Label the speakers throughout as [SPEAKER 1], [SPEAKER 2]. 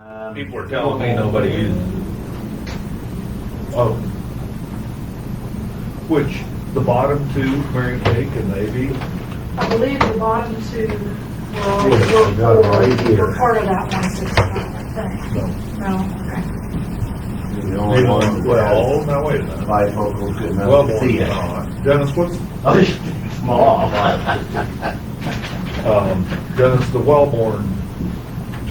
[SPEAKER 1] Um,
[SPEAKER 2] People were telling me nobody used
[SPEAKER 3] Oh. Which, the bottom two, Mary Kay and Navy,
[SPEAKER 4] I believe the bottom two
[SPEAKER 5] Yes, I got it right
[SPEAKER 4] were,
[SPEAKER 5] here.
[SPEAKER 4] were part of that one sixty-five thing.
[SPEAKER 3] no.
[SPEAKER 4] No, okay.
[SPEAKER 5] The
[SPEAKER 3] They
[SPEAKER 5] only one
[SPEAKER 3] want,
[SPEAKER 5] that
[SPEAKER 3] well, now wait a
[SPEAKER 5] has
[SPEAKER 3] minute.
[SPEAKER 5] bifocals could
[SPEAKER 3] Well,
[SPEAKER 5] not see it.
[SPEAKER 3] uh, Dennis, what's,
[SPEAKER 5] Small.
[SPEAKER 3] um, Dennis, the Wellborn,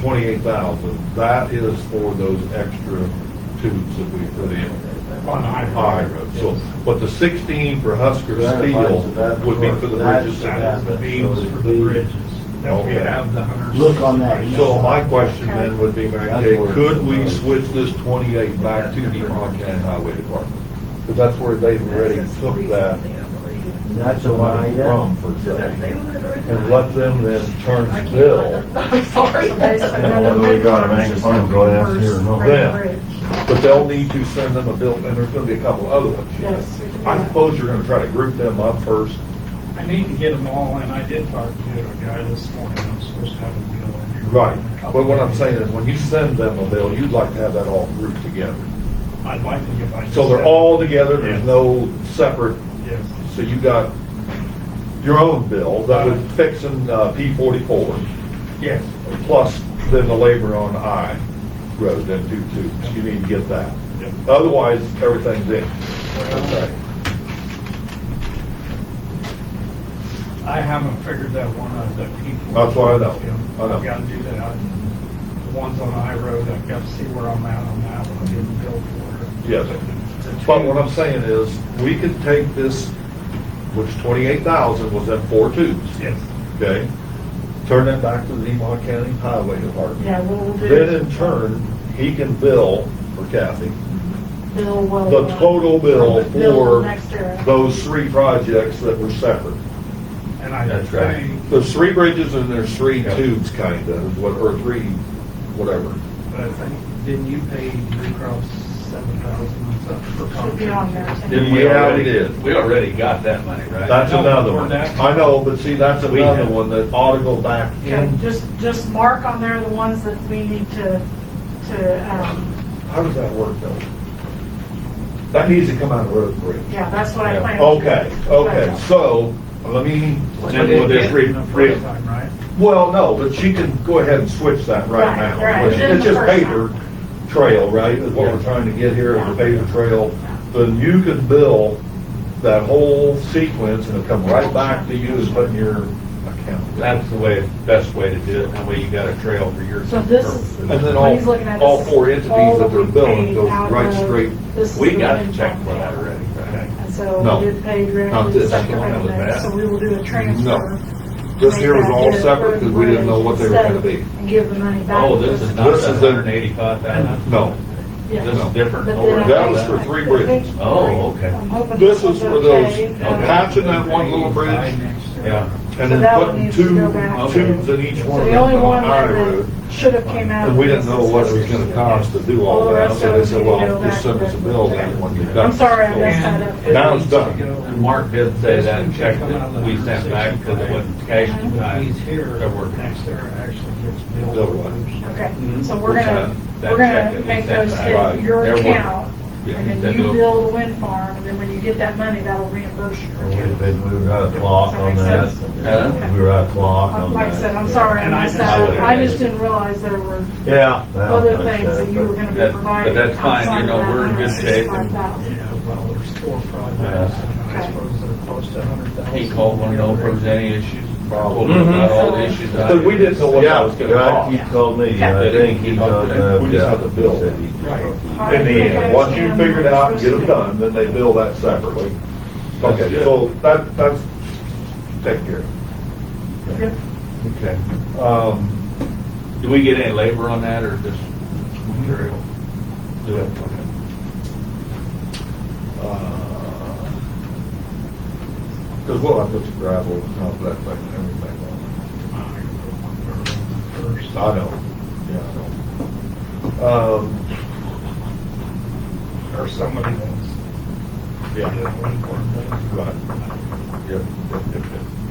[SPEAKER 3] twenty-eight thousand, that is for those extra tubes that we put in.
[SPEAKER 2] on
[SPEAKER 3] High road, so, but the sixteen for Husker Steel would be for the bridges.
[SPEAKER 5] That's-
[SPEAKER 2] The beams for the bridges, that we
[SPEAKER 3] Okay.
[SPEAKER 2] have the hundred.
[SPEAKER 5] Look
[SPEAKER 3] uh,
[SPEAKER 5] on that.
[SPEAKER 3] So my question then would be, Mary
[SPEAKER 5] That's
[SPEAKER 3] Kay,
[SPEAKER 5] where-
[SPEAKER 3] could we switch this twenty-eight back to the Montana Highway Department? Because that's where they've already took that
[SPEAKER 5] That's the one I
[SPEAKER 3] money from
[SPEAKER 5] got.
[SPEAKER 3] for sale. And let them then turn the bill,
[SPEAKER 4] I'm sorry.
[SPEAKER 5] then we gotta make a phone call down here and over
[SPEAKER 3] there. but they'll need to send them a bill, and there's gonna be a couple other ones.
[SPEAKER 4] Yes, we can do
[SPEAKER 3] I
[SPEAKER 4] that.
[SPEAKER 3] suppose you're gonna try to group them up first.
[SPEAKER 2] I need to get them all in, I did talk to a guy this morning, I'm supposed to have a deal in here.
[SPEAKER 3] But what I'm saying is, when you send them a bill, you'd like to have that all grouped together.
[SPEAKER 2] I'd like to get my.
[SPEAKER 3] So they're all together, there's no separate
[SPEAKER 2] Yes,
[SPEAKER 3] So you got your own bill that was fixing uh, P forty-four,
[SPEAKER 2] yes,
[SPEAKER 3] plus then the labor on I road, then two two. You need to get that.
[SPEAKER 2] Yep.
[SPEAKER 3] Otherwise, everything's in. Okay.
[SPEAKER 2] I haven't figured that one out, that people.
[SPEAKER 3] That's what I know. I know.
[SPEAKER 2] I've got to do that, the ones on I road, I've got to see where I'm at on that one, I didn't bill for it.
[SPEAKER 3] Yes. But what I'm saying is, we could take this, which twenty-eight thousand was at four twos,
[SPEAKER 2] Yes,
[SPEAKER 3] okay? Turn that back to the Emon County Highway Department.
[SPEAKER 4] Yeah, we'll
[SPEAKER 3] Then
[SPEAKER 4] do
[SPEAKER 3] in turn, he can bill for Kathy.
[SPEAKER 4] Bill will.
[SPEAKER 3] the total bill for
[SPEAKER 4] Bill next year.
[SPEAKER 3] those three projects that were separate.
[SPEAKER 2] and I
[SPEAKER 5] That's right.
[SPEAKER 2] think
[SPEAKER 3] There's three bridges and there's three tubes kind of, what- or three, whatever.
[SPEAKER 2] But I think, didn't you pay Blue Cross seven thousand and something for
[SPEAKER 4] Should be on there.
[SPEAKER 2] contractors?
[SPEAKER 4] too.
[SPEAKER 3] we Yeah, we did.
[SPEAKER 6] We already got that money, right?
[SPEAKER 3] That's
[SPEAKER 2] No,
[SPEAKER 3] another
[SPEAKER 2] we're
[SPEAKER 3] one.
[SPEAKER 2] not.
[SPEAKER 3] I know, but see, that's
[SPEAKER 6] We
[SPEAKER 3] another
[SPEAKER 6] have-
[SPEAKER 3] one that ought to go back
[SPEAKER 4] Okay,
[SPEAKER 3] in.
[SPEAKER 4] just, just mark on there the ones that we need to, to, um,
[SPEAKER 3] How does that work though? That needs to come out of road and bridge.
[SPEAKER 4] yeah, that's what I plan. to do.
[SPEAKER 3] Okay, okay, so let me,
[SPEAKER 6] Then we'll just
[SPEAKER 2] Free,
[SPEAKER 6] read,
[SPEAKER 2] free
[SPEAKER 6] read.
[SPEAKER 2] time, right?
[SPEAKER 3] well, no, but she can go ahead and switch that right
[SPEAKER 4] Right,
[SPEAKER 3] now.
[SPEAKER 4] right.
[SPEAKER 3] It's- It's just
[SPEAKER 4] Just the first
[SPEAKER 3] paper trail, right, is what we're trying to get here, is a paper trail. Then you could bill that whole sequence and it'll come right back to you as putting your account.
[SPEAKER 6] That's the way, best way to do it, that way you got a trail for your.
[SPEAKER 4] So this is-
[SPEAKER 3] And then
[SPEAKER 4] What he's
[SPEAKER 3] all,
[SPEAKER 4] looking at
[SPEAKER 3] all
[SPEAKER 4] is
[SPEAKER 3] four entities
[SPEAKER 4] all
[SPEAKER 3] that they're
[SPEAKER 4] we
[SPEAKER 3] billing
[SPEAKER 4] paid
[SPEAKER 3] goes
[SPEAKER 4] out
[SPEAKER 3] right
[SPEAKER 4] of-
[SPEAKER 3] straight.
[SPEAKER 4] this is
[SPEAKER 6] We
[SPEAKER 4] the
[SPEAKER 6] got
[SPEAKER 4] one
[SPEAKER 6] to check for
[SPEAKER 4] we
[SPEAKER 6] that
[SPEAKER 4] paid.
[SPEAKER 6] already, right?
[SPEAKER 4] And
[SPEAKER 3] No.
[SPEAKER 4] so we did pay
[SPEAKER 6] Not
[SPEAKER 4] grant,
[SPEAKER 6] this, that's the
[SPEAKER 4] separate
[SPEAKER 6] one that was
[SPEAKER 4] that,
[SPEAKER 6] bad.
[SPEAKER 4] so we will do a transfer.
[SPEAKER 3] This here was all separate because we didn't know what they were gonna be.
[SPEAKER 4] And give the money back.
[SPEAKER 6] Oh, this is not
[SPEAKER 3] This
[SPEAKER 6] the
[SPEAKER 3] is a-
[SPEAKER 6] hundred and eighty-five thousand?
[SPEAKER 3] No,
[SPEAKER 4] Yeah.
[SPEAKER 6] This is different.
[SPEAKER 4] But
[SPEAKER 6] over
[SPEAKER 4] then I
[SPEAKER 3] That was
[SPEAKER 4] think-
[SPEAKER 3] for
[SPEAKER 4] I
[SPEAKER 3] three
[SPEAKER 4] think-
[SPEAKER 3] bridges.
[SPEAKER 6] Oh, okay.
[SPEAKER 4] I'm hoping
[SPEAKER 3] This is
[SPEAKER 4] one's
[SPEAKER 3] for those- uh,
[SPEAKER 4] okay.
[SPEAKER 3] Okay. patching that one little bridge.
[SPEAKER 6] Yeah.
[SPEAKER 3] and
[SPEAKER 4] So
[SPEAKER 3] then
[SPEAKER 4] that one
[SPEAKER 3] putting
[SPEAKER 4] needs to
[SPEAKER 3] two
[SPEAKER 4] go back.
[SPEAKER 3] tubes in each one
[SPEAKER 4] So
[SPEAKER 3] of
[SPEAKER 4] the
[SPEAKER 3] them
[SPEAKER 4] only
[SPEAKER 3] on
[SPEAKER 4] one
[SPEAKER 3] our
[SPEAKER 4] that
[SPEAKER 3] road.
[SPEAKER 4] should have came out.
[SPEAKER 3] And we didn't
[SPEAKER 4] of
[SPEAKER 3] know
[SPEAKER 4] this
[SPEAKER 3] what it
[SPEAKER 4] is-
[SPEAKER 3] was gonna cost to do all that, so they said, well, just send us a bill then when you're done.
[SPEAKER 4] I'm sorry, I messed that up.
[SPEAKER 2] And it
[SPEAKER 3] Now it's
[SPEAKER 2] needs to
[SPEAKER 3] done.
[SPEAKER 2] go-
[SPEAKER 6] And Mark did say that and checked it, we sent back because it wasn't cash
[SPEAKER 4] Uh-huh.
[SPEAKER 6] in
[SPEAKER 2] When
[SPEAKER 6] time.
[SPEAKER 2] uh, He's here,
[SPEAKER 6] They're working.
[SPEAKER 2] next there actually gets
[SPEAKER 3] Double
[SPEAKER 2] billed.
[SPEAKER 3] wide.
[SPEAKER 4] Okay,
[SPEAKER 6] Mhm.
[SPEAKER 4] so we're gonna,
[SPEAKER 6] That
[SPEAKER 4] we're
[SPEAKER 6] check
[SPEAKER 4] gonna
[SPEAKER 6] that
[SPEAKER 4] make
[SPEAKER 6] we sent
[SPEAKER 4] those
[SPEAKER 6] back.
[SPEAKER 4] hit your
[SPEAKER 6] Right.
[SPEAKER 4] account,
[SPEAKER 6] Yeah,
[SPEAKER 4] and
[SPEAKER 6] that
[SPEAKER 4] then you
[SPEAKER 6] will-
[SPEAKER 4] build the wind farm, and then when you get that money, that'll reimburse your
[SPEAKER 5] We'd have
[SPEAKER 4] account.
[SPEAKER 5] been, we were out of clock on
[SPEAKER 4] Does
[SPEAKER 6] that make
[SPEAKER 5] that.
[SPEAKER 4] sense?
[SPEAKER 5] We were out of clock on that.
[SPEAKER 4] Like I said, I'm sorry, I
[SPEAKER 2] And I
[SPEAKER 4] messed
[SPEAKER 2] just-
[SPEAKER 4] that up, I just didn't realize there were
[SPEAKER 5] Yeah.
[SPEAKER 4] other things that you were gonna be
[SPEAKER 6] That- but
[SPEAKER 4] providing.
[SPEAKER 6] that's fine, you
[SPEAKER 4] outside of
[SPEAKER 6] know,
[SPEAKER 4] that
[SPEAKER 6] we're in good shape.
[SPEAKER 4] $165,000.
[SPEAKER 2] Yeah, well, there's four projects, and I suppose they're close to a hundred thousand.
[SPEAKER 6] He called one over, was any issues, told him
[SPEAKER 3] Mhm.
[SPEAKER 6] about all the issues. I
[SPEAKER 3] But we didn't know what that was gonna
[SPEAKER 5] Yeah,
[SPEAKER 3] cost.
[SPEAKER 5] he told me, I
[SPEAKER 6] Yeah.
[SPEAKER 5] think he uh, done that.
[SPEAKER 3] We just had to bill.
[SPEAKER 2] Right.
[SPEAKER 3] In the end, once you figure it out and get them done, then they bill that separately. Okay, so that, that's, take care.
[SPEAKER 4] Yep.
[SPEAKER 3] Okay. Um,
[SPEAKER 6] Did we get any labor on that or just
[SPEAKER 3] Mm-hmm.
[SPEAKER 6] material?
[SPEAKER 3] Do it. Uh, Because we'll have to put the gravel and all that thing and everything on.
[SPEAKER 2] First.
[SPEAKER 3] I know. Yeah, I know. Um,
[SPEAKER 2] or somebody else.
[SPEAKER 3] yeah,
[SPEAKER 2] One corner.
[SPEAKER 3] right. Yeah, yeah, yeah, yeah.